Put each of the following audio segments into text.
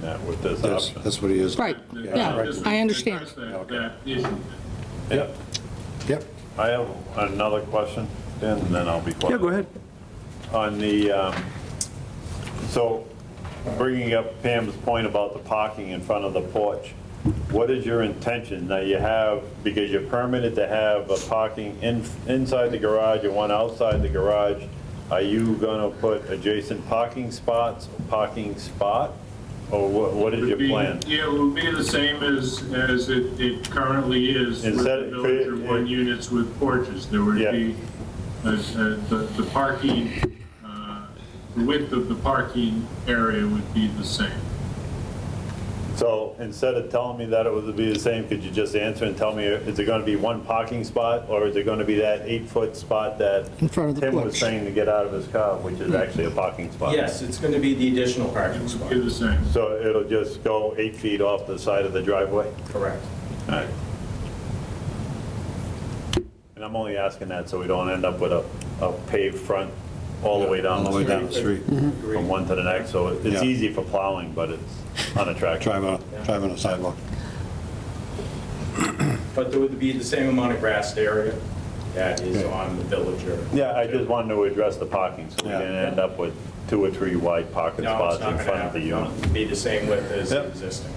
that with this That's, option. that's what he is. Right, Yeah, yeah, right. I understand. That that issue. Yep. Yep. I have another question, Dan, and then I'll be quiet. Yeah, go ahead. On the, um, so bringing up Pam's point about the parking in front of the porch, what is your intention? Now you have, because you're permitted to have a parking in inside the garage and one outside the garage, are you going to put adjacent parking spots, parking spot? Or what what is Would your be- plan? Yeah, it would be the same as, as it it currently is with Instead- the village or one units with porches. There would Yeah. be, uh, uh, the the parking, uh, the width of the parking area would be the same. So instead of telling me that it would be the same, could you just answer and tell me, is it going to be one parking spot? Or is it going to be that eight-foot spot that In front of the Tim was porch. saying to get out of his car, which is actually a parking spot? Yes, it's going to be the additional It parking would spot, be the same. So it'll just go eight feet off the side of the driveway? correct. Alright. And I'm only asking that so we don't end up with a a paved front all the way down All the way down the the street. street. From one to the next, so it's Yeah. easy for plowing, but it's unattractive. Drive on, drive on a sidewalk. But there would be the same amount of grassed area that is Okay. on the villager. Yeah, I just wanted to address the parking, so we Yeah. didn't end up with two or three wide parking No, it's spots not in going to front of the happen. unit. It'll Be the same width as Yep. existing.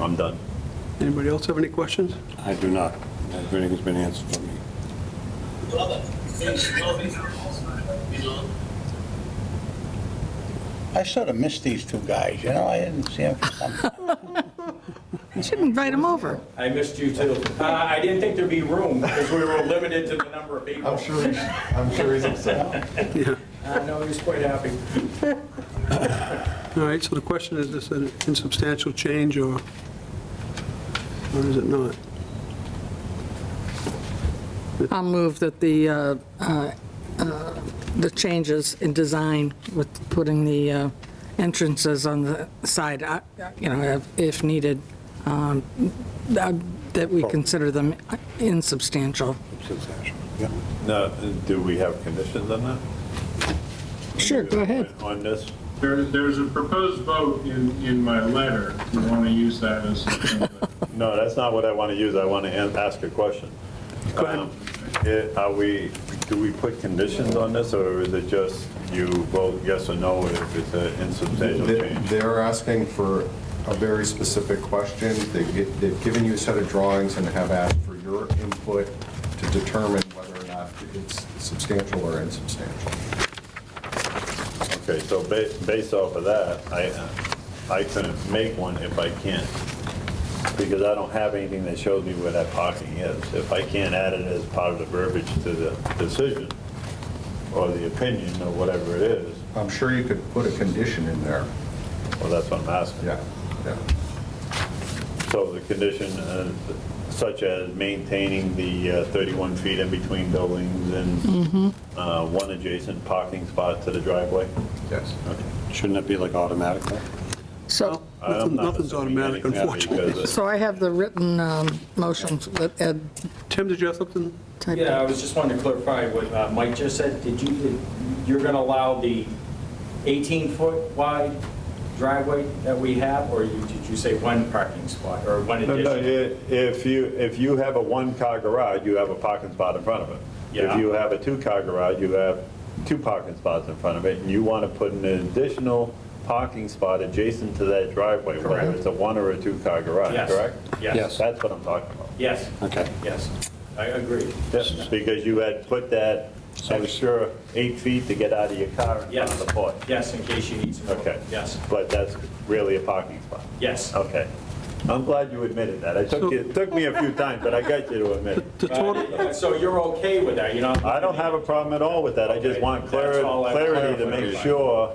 I'm done. Anybody else have any questions? I do not. Everything's been answered for me. I sort of miss these two guys, you know, I didn't see them for some You should invite him over. I missed you too. Uh, I didn't think there'd be room because we were limited to the number of people. he's, I'm sure he's upset. Uh, No, he was quite happy. All right, so the question is, is this an insubstantial change or, or is it not? I'll move that the, uh, uh, uh, the changes in design with putting the uh, entrances on the side, uh, you know, if- if needed, um, that that we consider them insubstantial. Substantial. Yeah. Now, do we have conditions on that? Sure, go ahead. On this? There, there's a proposed vote in, in my letter, if you want to use that as. No, that's not what I want to use. I want to an- ask a question. Go Are we, do we put conditions on this, or is it just you vote yes or no if it's an insubstantial They- change? They're asking for a very specific question. They've gi- they've given you a set of drawings and have asked for your input to determine whether or not it's substantial or insubstantial. Okay, so ba- based off of that, I, I couldn't make one if I can't, because I don't have anything that shows me where that parking is. If I can't add it as part of the verbiage to the decision, or the opinion, or whatever it is, I'm sure you could put a condition in there. well, that's what I'm asking. Yeah, yeah. So the condition uh, such as maintaining the uh, 31 feet in between buildings and uh, one adjacent parking spot to the driveway? Yes. Shouldn't that be like automatic? though? So, I'm not Nothing's assuming automatic, anything unfortunately. because, uh, so I have the written um, motion that Ed Tim, did you have something? typed. Yeah, I was just wanting to clarify what uh, Mike just said. Did you, did- you're going to allow the 18-foot wide driveway that we have? Or you, did you say one parking spot or one No, no, additional? i- If you, if you have a one-car garage, you have a parking spot in front of it. If Yeah. you have a two-car garage, you have two parking spots in front of it, and you want to put an additional parking spot adjacent to that driveway, whether Correct. it's a one or a two-car garage, Yes. correct? Yes. That's what I'm talking about. Yes, Okay. yes. I agree. Yes, because you had put that extra eight feet to get out of your car in front Yes. of the porch. Yes, in case you need some. Okay. Oh. Yes, But that's really a parking spot. yes. Okay. I'm glad you admitted that. It took, you- it took me a few times, but I got you to admit it. The total, Uh, So you're okay with that, you know? I don't have a problem at all with that. I just want That's clarity, all I- clarity to make sure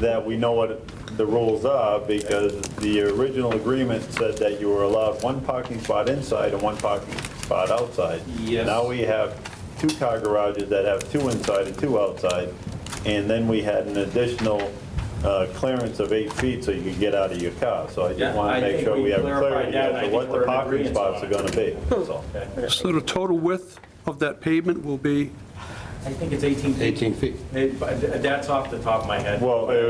that we know what the rules are, because the original agreement said that you were allowed one parking spot inside and one parking spot outside. Yes. Now we have two car garages that have two inside and two outside, and then we had an additional uh, clearance of eight feet so you could get out of your car. So I Yeah, just want to I make think sure we we have clarified clarity that, as and I to think what we're the in parking agreement spots on are it. going to be, that's all. so the total width of that pavement will be? I think it's 18 feet. 18 feet. It- but That's off the top of my head. Well, uh,